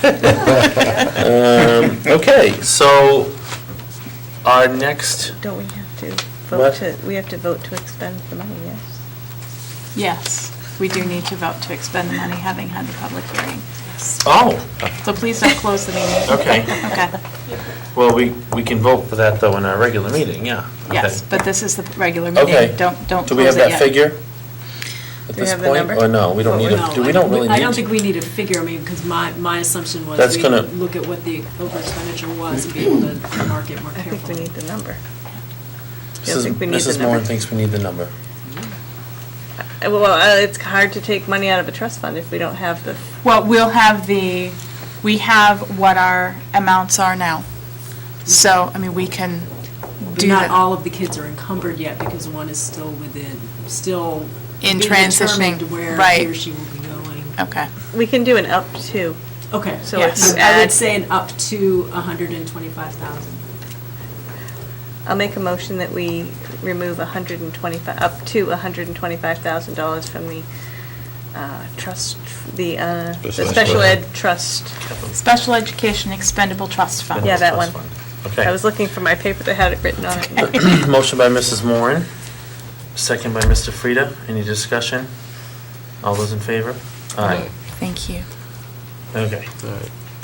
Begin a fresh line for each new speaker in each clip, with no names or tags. Um, Okay, so our next,
Don't we have to
What?
vote to, we have to vote to expend the money, yes?
Yes, we do need to vote to expend the money, having had the public hearing.
oh,
So please don't close the meeting.
okay.
Okay,
Well, we, we can vote for that though in our regular meeting, yeah. Okay.
yes, but this is the regular
Okay.
meeting. Don't, don't
Do we
close
have
it
that
yet.
figure? At
Do we
this
have the
point,
number?
or no, we don't
Oh,
need
No,
it, do we don't really need?
I don't
to?
think we need a figure, I mean, because my, my assumption
That's
was we
gonna-
look at what the over expenditure was and be able to mark it more
I think we
carefully.
need the number. I don't
Mrs.
think we need the
Mrs. Moore
number.
thinks we need the number.
Uh, Well, uh, it's hard to take money out of a trust fund if we don't have the,
Well, we'll have the, we have what our amounts are now. So, I mean, we can
But
do
not
that.
all of the kids are encumbered yet because one is still within, still
In
being
transitioning,
determined where
right.
he or she will be going.
Okay,
we can do an up to.
Okay, so
So if
Yes.
you
I would
add,
say an up to 125,000.
I'll make a motion that we remove 125, up to $125,000 from the uh, trust, the, uh, the
Special
special
ed.
ed trust.
Special Education Expendable Trust Fund.
Yeah, that one.
Trust fund.
I
Okay.
was looking for my paper that had it written on it.
Motion by Mrs. Moran, second by Mr. Frida. Any discussion? All those in favor? Aye.
Thank you.
Okay.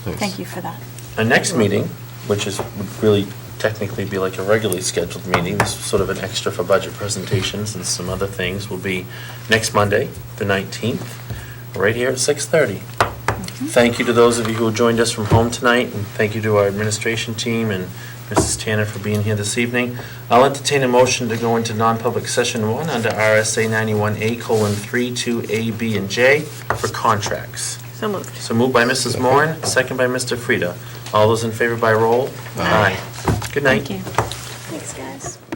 Thank you for that.
Our next meeting, which is, would really technically be like a regularly scheduled meeting, this is sort of an extra for budget presentations and some other things, will be next Monday, the 19th, right here at 6:30. Thank you to those of you who joined us from home tonight, and thank you to our administration team and Mrs. Tanner for being here this evening. I'll entertain a motion to go into non-public session one under RSA 91A colon 3, 2A, B, and J for contracts.
So moved.
So moved by Mrs. Moran, second by Mr. Frida. All those in favor by roll? Aye. Good night.
Thank you.
Thanks, guys.